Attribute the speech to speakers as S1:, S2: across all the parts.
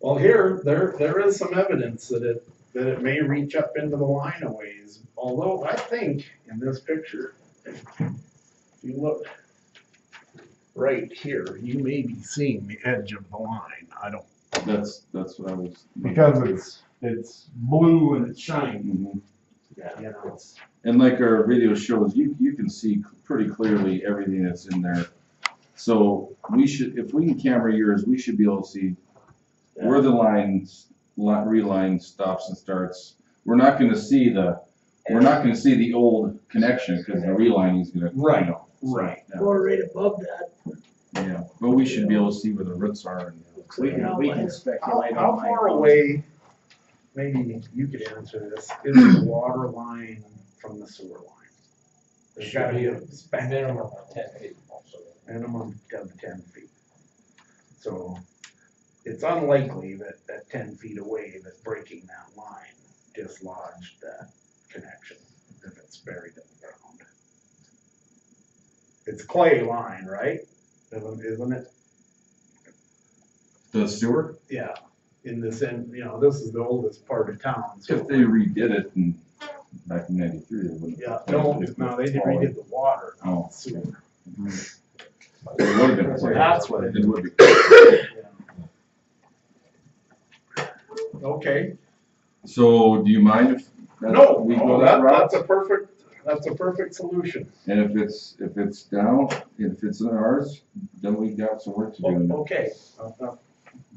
S1: Well, here, there, there is some evidence that it, that it may reach up into the line a ways, although I think in this picture, if you look right here, you may be seeing the edge of the line, I don't.
S2: That's, that's what I was.
S3: Because it's, it's blue and it's shiny.
S2: Mhm.
S1: Yeah. You know, it's,
S2: And like our video shows, you, you can see pretty clearly everything that's in there. So we should, if we can camera yours, we should be able to see where the lines, li- reline stops and starts. We're not gonna see the, we're not gonna see the old connection, cause the relining is gonna. you
S3: Right,
S2: know, so,
S3: right.
S2: yeah.
S4: Or right above that.
S2: Yeah, but we should be able to see where the roots are and.
S5: We can, we can
S1: How,
S5: speculate.
S1: how
S5: on my
S1: far
S5: own.
S1: away, maybe you could answer this, is the water line from the sewer line? There's gotta be a span.
S6: Minimum of ten feet also.
S1: minimum of ten feet. So it's unlikely that, that ten feet away, that breaking that line dislodged that connection if it's buried in the ground. It's clay line, right? Isn't, isn't it?
S2: The sewer,
S1: Yeah, in this end, you know, this is the oldest part of town, so.
S2: if they redid it in, back in ninety-three, they wouldn't.
S1: Yeah, no, no, they redid the water,
S2: Oh.
S1: not the sewer.
S2: It would have been.
S1: So that's what it
S2: It would be.
S1: Okay.
S2: So do you mind if? that's-
S1: No,
S2: We
S1: no,
S2: go
S1: that,
S2: that route?
S1: that's a perfect, that's a perfect solution.
S2: And if it's, if it's down, if it's in ours, then we got some work to do. in
S1: O-
S2: there.
S1: Okay. Uh, uh,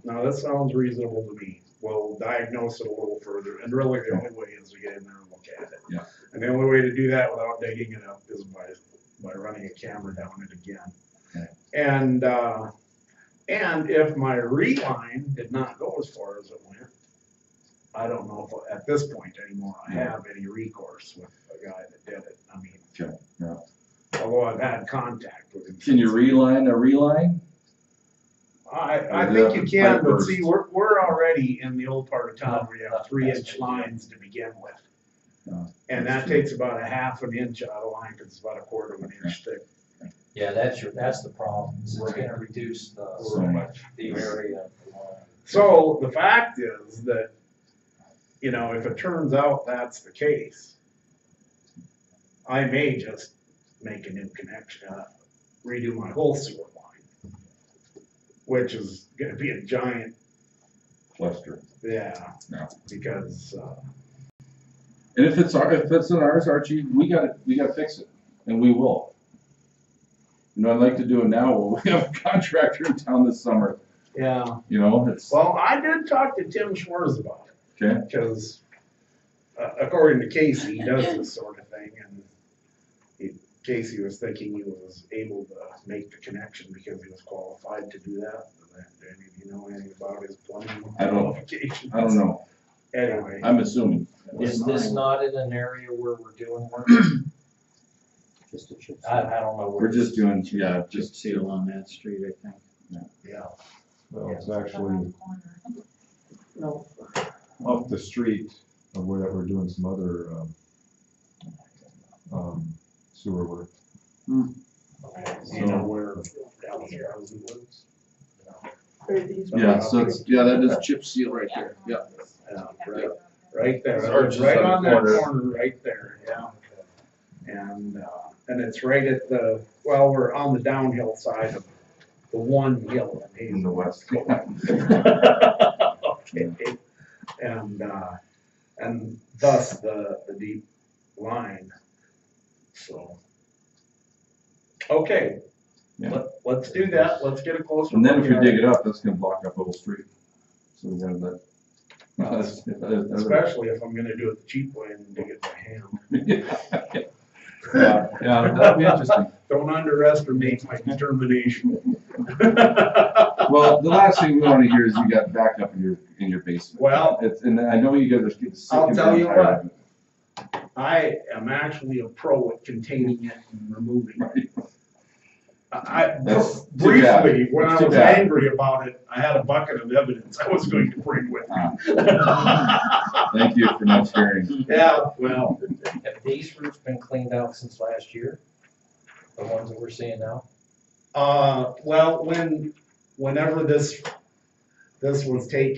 S1: Now, that sounds reasonable to me. We'll diagnose it a little further, and really the only way is to get in there and look at it.
S2: Yeah.
S1: And the only way to do that without digging it up is by, by running a camera down it
S2: Yeah.
S1: again. And, uh, and if my reline did not go as far as it went, I don't know if, at this point anymore, I have any recourse with the guy that did it. I mean.
S2: Okay, yeah.
S1: Although I've had contact with him.
S2: Can you
S1: since.
S2: reline a reline?
S1: I, I
S2: Or
S1: think
S2: the
S1: you can,
S2: pipe
S1: but
S2: burst.
S1: see, we're, we're already in the old part of town where you have three inch lines to begin
S2: Yeah,
S1: with. And
S2: that's
S1: that
S2: true.
S1: takes about a half an inch out of line, cause it's about a quarter of an inch thick.
S6: Yeah, that's your, that's the problem, is it's gonna reduce
S2: So
S6: the,
S2: much.
S6: the area of the line.
S1: So the fact is that, you know, if it turns out that's the case, I may just make a new connection, uh, redo my whole sewer line. Which is gonna be a giant,
S2: Cluster.
S1: yeah,
S2: Yeah.
S1: because, uh,
S2: And if it's our, if it's in ours, Archie, we gotta, we gotta fix it, and we will. You know, I'd like to do it now, while we have a contractor in town this summer,
S1: yeah.
S2: you know, it's,
S1: Well, I did talk to Tim Schwartz about it.
S2: Okay.
S1: Because uh, according to Casey, he does this sort of thing and he- Casey was thinking he was able to make the connection because he was qualified to do that. And if you know anything about his plumbing
S2: I don't-
S1: qualifications.
S2: I don't know,
S1: Anyway,
S2: I'm assuming.
S6: Is this not in an area where we're doing work?
S5: Just a chip.
S6: I, I don't know. where-
S2: We're just doing, yeah,
S5: Chip
S2: just,
S5: seal on that street, I think.
S1: yeah.
S3: Well, it's actually
S1: No.
S3: off the street of where that we're doing some other, um, um, sewer work.
S1: You know where Dallas Rousey lives?
S2: yeah, so it's, yeah, that is chip seal right there, yeah.
S1: Yeah, Um, right, right there,
S2: Or just
S1: right
S2: on the
S1: on that
S2: corner.
S1: corner, right there, yeah. And, uh, and it's right at the, well, we're on the downhill side of the one hill in
S2: In the
S1: Hazel.
S2: west.
S1: Okay, and, uh, and thus the, the deep line, so. Okay,
S2: Yeah.
S1: let, let's do that, let's get a closer.
S2: And then if
S1: look
S2: you
S1: at
S2: dig
S1: it,
S2: it up, that's gonna block up the whole street. So we have that. That's- that's- that's-
S1: Especially if I'm gonna do it the cheap way and dig it by hand.
S2: Yeah, yeah, that'd be interesting.
S1: Don't underestimate my determination.
S2: Well, the last thing we wanna hear is you got backup in your, in your basement.
S1: Well-
S2: It's, and I know you guys are getting sick.
S1: I'll
S2: and
S1: tell you
S2: tired of it.
S1: I am actually a pro at containing it and removing it. I,
S2: That's too bad.
S1: briefly, when
S2: That's
S1: I
S2: too
S1: was
S2: bad.
S1: angry about it, I had a bucket of evidence I was going to bring with me.
S2: Ah. Thank you for not sharing.
S1: Yeah, well,
S6: Have these roofs been cleaned out since last year? The ones that we're seeing now?
S1: uh, well, when, whenever this, this was taken.